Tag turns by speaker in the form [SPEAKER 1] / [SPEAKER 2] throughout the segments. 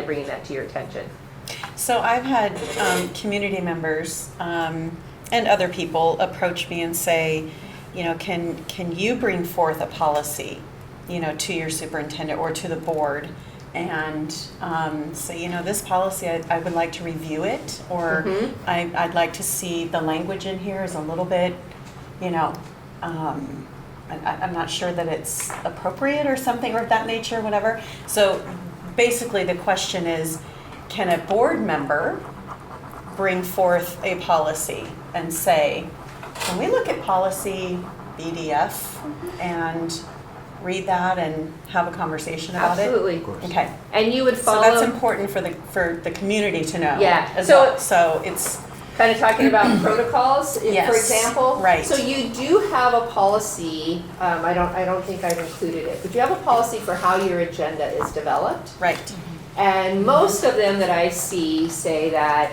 [SPEAKER 1] bringing that to your attention.
[SPEAKER 2] So I've had um, community members um, and other people approach me and say, you know, can can you bring forth a policy, you know, to your superintendent or to the board, and um, say, you know, this policy I, I would like to review it, or
[SPEAKER 1] Mhm.
[SPEAKER 2] I, I'd like to see the language in here is a little bit, you know. Um, I- I- I'm not sure that it's appropriate or something or of that nature, whatever. So basically, the question is, can a board member bring forth a policy and say, can we look at policy BDF and read that and have a conversation about it?
[SPEAKER 1] Absolutely.
[SPEAKER 2] Okay,
[SPEAKER 1] And you would
[SPEAKER 2] so that's
[SPEAKER 1] follow,
[SPEAKER 2] important for the, for the community to know.
[SPEAKER 1] Yeah.
[SPEAKER 2] As
[SPEAKER 1] So-
[SPEAKER 2] well, so it's,
[SPEAKER 1] kind of talking about protocols, if- for
[SPEAKER 2] Yes,
[SPEAKER 1] example.
[SPEAKER 2] right.
[SPEAKER 1] So you do have a policy, um, I don't, I don't think I've included it, but you have a policy for how your agenda is developed.
[SPEAKER 2] right,
[SPEAKER 1] And most of them that I see say that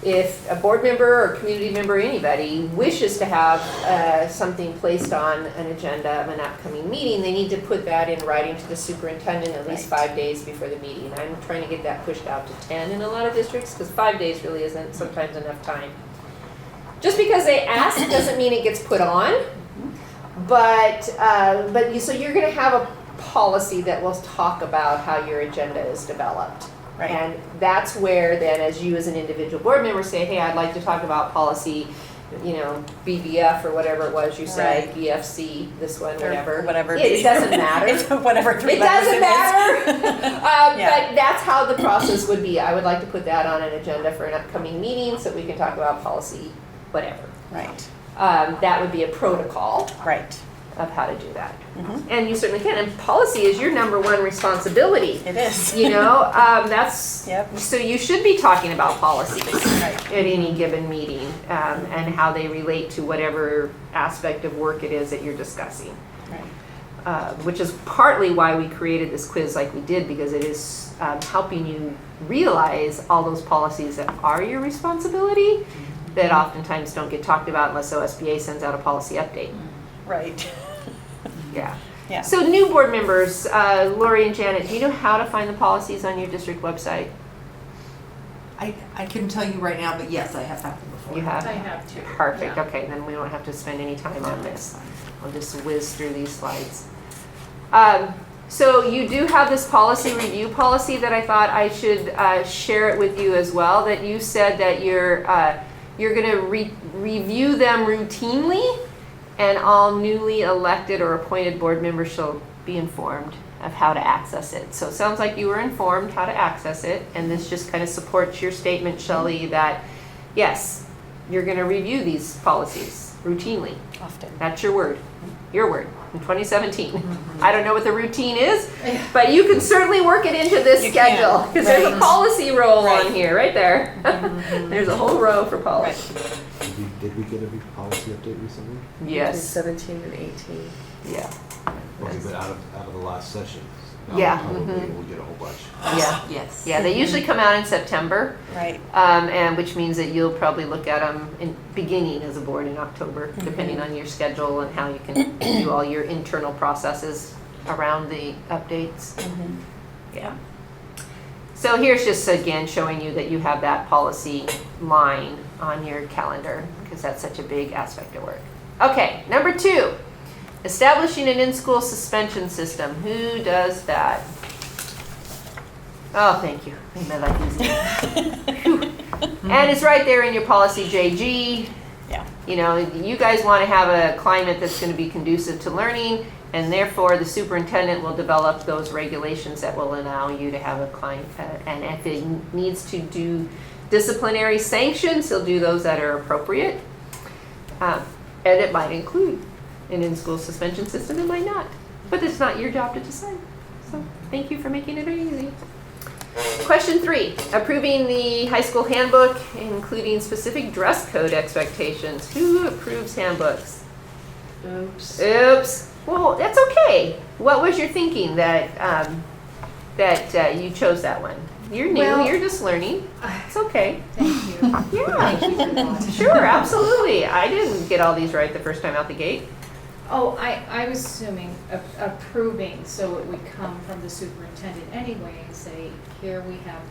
[SPEAKER 1] if a board member or community member, anybody wishes to have uh, something placed on an agenda of an upcoming meeting, they need to put that in writing to the superintendent at least
[SPEAKER 2] Right.
[SPEAKER 1] five days before the meeting. I'm trying to get that pushed out to ten in a lot of districts, because five days really isn't sometimes enough time. Just because they ask doesn't mean it gets put on. But, uh, but you, so you're gonna have a policy that will talk about how your agenda is developed.
[SPEAKER 2] right.
[SPEAKER 1] And that's where then, as you as an individual board member say, hey, I'd like to talk about policy, you know, BBF or whatever it was you said,
[SPEAKER 2] Right.
[SPEAKER 1] BFC, this one,
[SPEAKER 2] Or
[SPEAKER 1] whatever.
[SPEAKER 2] Whatever.
[SPEAKER 1] It doesn't matter.
[SPEAKER 2] It's whatever three
[SPEAKER 1] It
[SPEAKER 2] letters
[SPEAKER 1] doesn't
[SPEAKER 2] is.
[SPEAKER 1] matter. Uh,
[SPEAKER 2] Yeah.
[SPEAKER 1] But that's how the process would be. I would like to put that on an agenda for an upcoming meeting so we can talk about policy, whatever.
[SPEAKER 2] Right,
[SPEAKER 1] Um, that would be a protocol
[SPEAKER 2] right.
[SPEAKER 1] of how to do that.
[SPEAKER 2] Mhm.
[SPEAKER 1] And you certainly can. And policy is your number one responsibility.
[SPEAKER 2] It is.
[SPEAKER 1] You know, um, that's
[SPEAKER 2] Yep.
[SPEAKER 1] so you should be talking about policies at
[SPEAKER 2] Right.
[SPEAKER 1] any given meeting um, and how they relate to whatever aspect of work it is that you're discussing.
[SPEAKER 2] Right.
[SPEAKER 1] Uh, which is partly why we created this quiz like we did because it is um, helping you realize all those policies that are your responsibility that oftentimes don't get talked about unless OSBA sends out a policy update.
[SPEAKER 2] Right.
[SPEAKER 1] Yeah.
[SPEAKER 2] Mm-hmm. Yeah.
[SPEAKER 1] So new board members, uh, Lori and Janet, do you know how to find the policies on your district website?
[SPEAKER 3] I, I couldn't tell you right now, but yes, I have happened before.
[SPEAKER 1] You have?
[SPEAKER 4] I have two.
[SPEAKER 1] Perfect,
[SPEAKER 4] yeah.
[SPEAKER 1] okay, then we don't have to spend any time on this. I'll just whiz through these slides. Um, so you do have this policy review policy that I thought I should, uh, share it with you as well, that you said that you're, uh, you're gonna re- review them routinely, and all newly elected or appointed board members shall be informed of how to access it. So it sounds like you were informed how to access it, and this just kind of supports your statement, Shelley, that, yes, you're gonna review these policies routinely.
[SPEAKER 2] Often.
[SPEAKER 1] That's your word, your word, in 2017.
[SPEAKER 2] Mm-hmm.
[SPEAKER 1] I don't know what the routine is, but you can certainly work it into this
[SPEAKER 2] You can,
[SPEAKER 1] schedule. Because there's a
[SPEAKER 2] right.
[SPEAKER 1] policy roll on
[SPEAKER 2] Right. Mm-hmm.
[SPEAKER 1] here, right there. There's a whole row for policy.
[SPEAKER 5] Did we, did we get a big policy update recently?
[SPEAKER 1] Yes,
[SPEAKER 4] Seventeen and eighteen.
[SPEAKER 1] yeah,
[SPEAKER 5] Okay,
[SPEAKER 1] Yes.
[SPEAKER 5] but out of, out of the last session. now
[SPEAKER 1] Yeah,
[SPEAKER 5] Probably
[SPEAKER 1] mhm.
[SPEAKER 5] we'll get a whole bunch.
[SPEAKER 1] yeah.
[SPEAKER 3] Yes.
[SPEAKER 1] Yeah, they usually come out in September,
[SPEAKER 2] Right,
[SPEAKER 1] um, and which means that you'll probably look at them in beginning as a board in October,
[SPEAKER 2] Mm-hmm.
[SPEAKER 1] depending on your schedule and how you can do all your internal processes around the updates. Yeah. So here's just again showing you that you have that policy line on your calendar because that's such a big aspect of work. Okay, number two, establishing an in-school suspension system. Who does that? Oh, thank you. Made my life easy. And it's right there in your policy JG.
[SPEAKER 2] Mm-hmm. Yeah.
[SPEAKER 1] You know, you guys want to have a climate that's going to be conducive to learning, and therefore the superintendent will develop those regulations that will allow you to have a climate. And if it needs to do disciplinary sanctions, he'll do those that are appropriate. Um, And it might include an in-school suspension system, it might not. But it's not your job to decide. So thank you for making it easy. Question three, approving the high school handbook, including specific dress code expectations. Who approves handbooks?
[SPEAKER 4] Oops.
[SPEAKER 1] Oops. Well, that's okay. What was your thinking that, um, that uh, you chose that one? You're new,
[SPEAKER 4] Well-
[SPEAKER 1] you're just learning. It's okay.
[SPEAKER 4] Thank you.
[SPEAKER 1] Yeah,
[SPEAKER 4] Thank you for that.
[SPEAKER 1] sure, absolutely. I didn't get all these right the first time out the gate.
[SPEAKER 4] Oh, I, I was assuming a- approving, so it would come from the superintendent anyway and say, here we have